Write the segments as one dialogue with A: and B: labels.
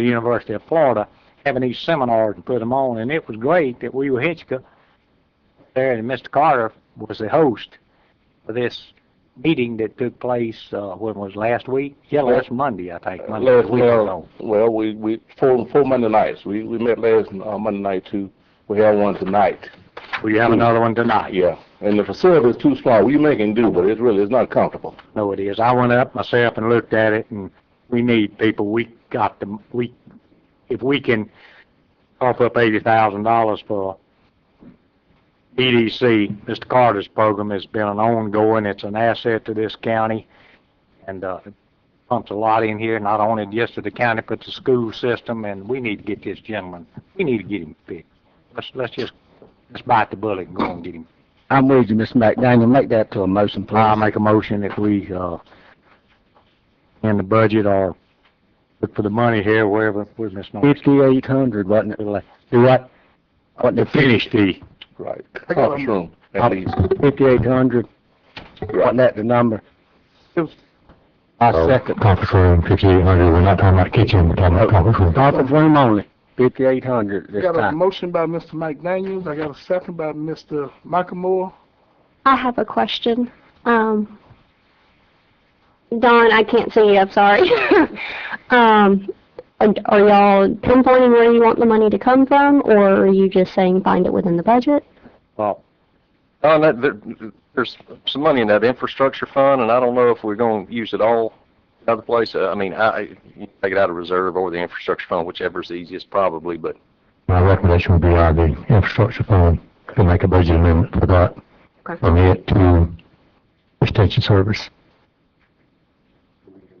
A: the University of Florida, having these seminars and put them on, and it was great that we were Hitchcock there, and Mr. Carter was the host for this meeting that took place, uh, when was last week? Yeah, last Monday, I think, Monday, a
B: Last,
A: week
B: well,
A: ago.
B: well, we, we, four, four Monday nights, we, we met last, uh, Monday night too, we have one tonight,
A: We have another one tonight.
B: yeah. And the facility is too small, we making do, but it's really, it's not comfortable.
A: No, it is. I went up myself and looked at it, and we need people. We got the, we, if we can cough up eighty thousand dollars for EDC, Mr. Carter's program has been an ongoing, it's an asset to this county, and, uh, it pumps a lot in here, not only just to the county, but the school system, and we need to get this gentleman, we need to get him fixed. Let's, let's just, let's bite the bullet and go and get him
C: I'm with you, Mr. McDaniel. Make that to a motion,
A: I
C: please.
A: make a motion that we, uh, in the budget or look for the money here, wherever, where's Miss Norris?
C: Fifty-eight hundred, wasn't it?
A: Do what?
C: Wasn't
A: To
C: it
A: finish the,
B: Right.
C: I got
B: Conference
C: one.
B: room, at least.
C: fifty-eight hundred? Wasn't that the number? I
D: Oh,
C: second.
D: Conference room, fifty-eight hundred, we're not talking about kitchen, we're talking about conference room.
C: Conference room only, fifty-eight hundred this
E: Got a
C: time.
E: motion by Mr. Mike Daniels, I got a second by Mr. Michael Moore.
F: I have a question. Um, Don, I can't see you. I'm sorry. um, are, are y'all pinpointing where you want the money to come from, or are you just saying find it within the budget?
A: well,
G: Oh, and that, there, there's some money in that infrastructure fund, and I don't know if we're gonna use it all another place. Uh, I mean, I, you can take it out of reserve or the infrastructure fund, whichever's the easiest probably, but
D: My recommendation would be out of the infrastructure fund, to make a budget amendment for that, from it to extension service.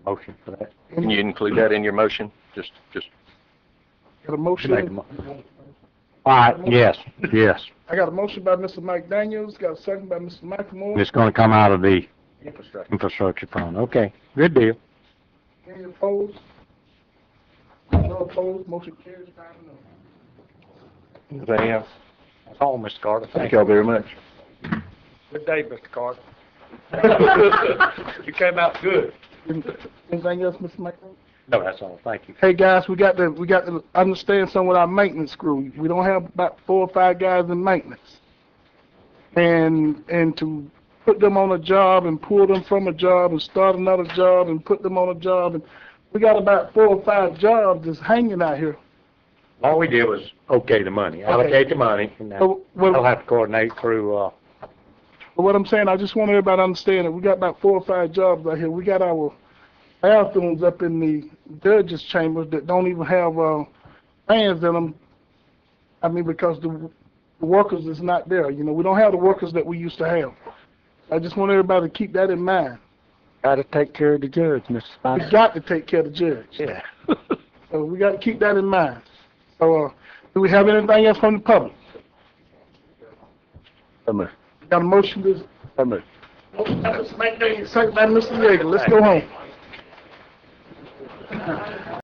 A: motion for that.
G: can you include that in your motion? Just, just,
E: Got a
A: Make a
E: motion,
A: mo- All right, yes, yes.
E: I got a motion by Mr. Mike Daniels, got a second by Mr. Michael Moore.
A: It's gonna come out of the infrastructure fund. Okay, good deal.
E: Any opposed? No opposed, motion carries five and oh.
B: Anything else?
A: That's all, Mr. Carter.
B: Thank y'all very much.
E: Good day, Mr. Carter. You came out good. Anything else, Mr. Mike?
A: No, that's all. Thank you.
E: Hey, guys, we got to, we got to understand some with our maintenance crew. We don't have about four or five guys in maintenance. And, and to put them on a job and pull them from a job and start another job and put them on a job and we got about four or five jobs just hanging out here.
A: All we did was okay the money, allocate the money, and now
E: So what-
A: I'll have to coordinate through, uh,
E: But what I'm saying, I just want everybody to understand that we got about four or five jobs out here. We got our bathrooms up in the judges' chambers that don't even have uh, fans in them. I mean, because the the workers is not there. You know, we don't have the workers that we used to have. I just want everybody to keep that in mind.
C: Gotta take care of the judge, Mr.
E: We
C: Spicer.
E: got to take care of the judge.
A: yeah.
E: So we got to keep that in mind. So, uh, do we have anything else from the public?
C: So moved.
E: Got a motion to
C: So moved.
E: Motion by Mr. McDaniel, second by Mr. Yeager. Let's go home.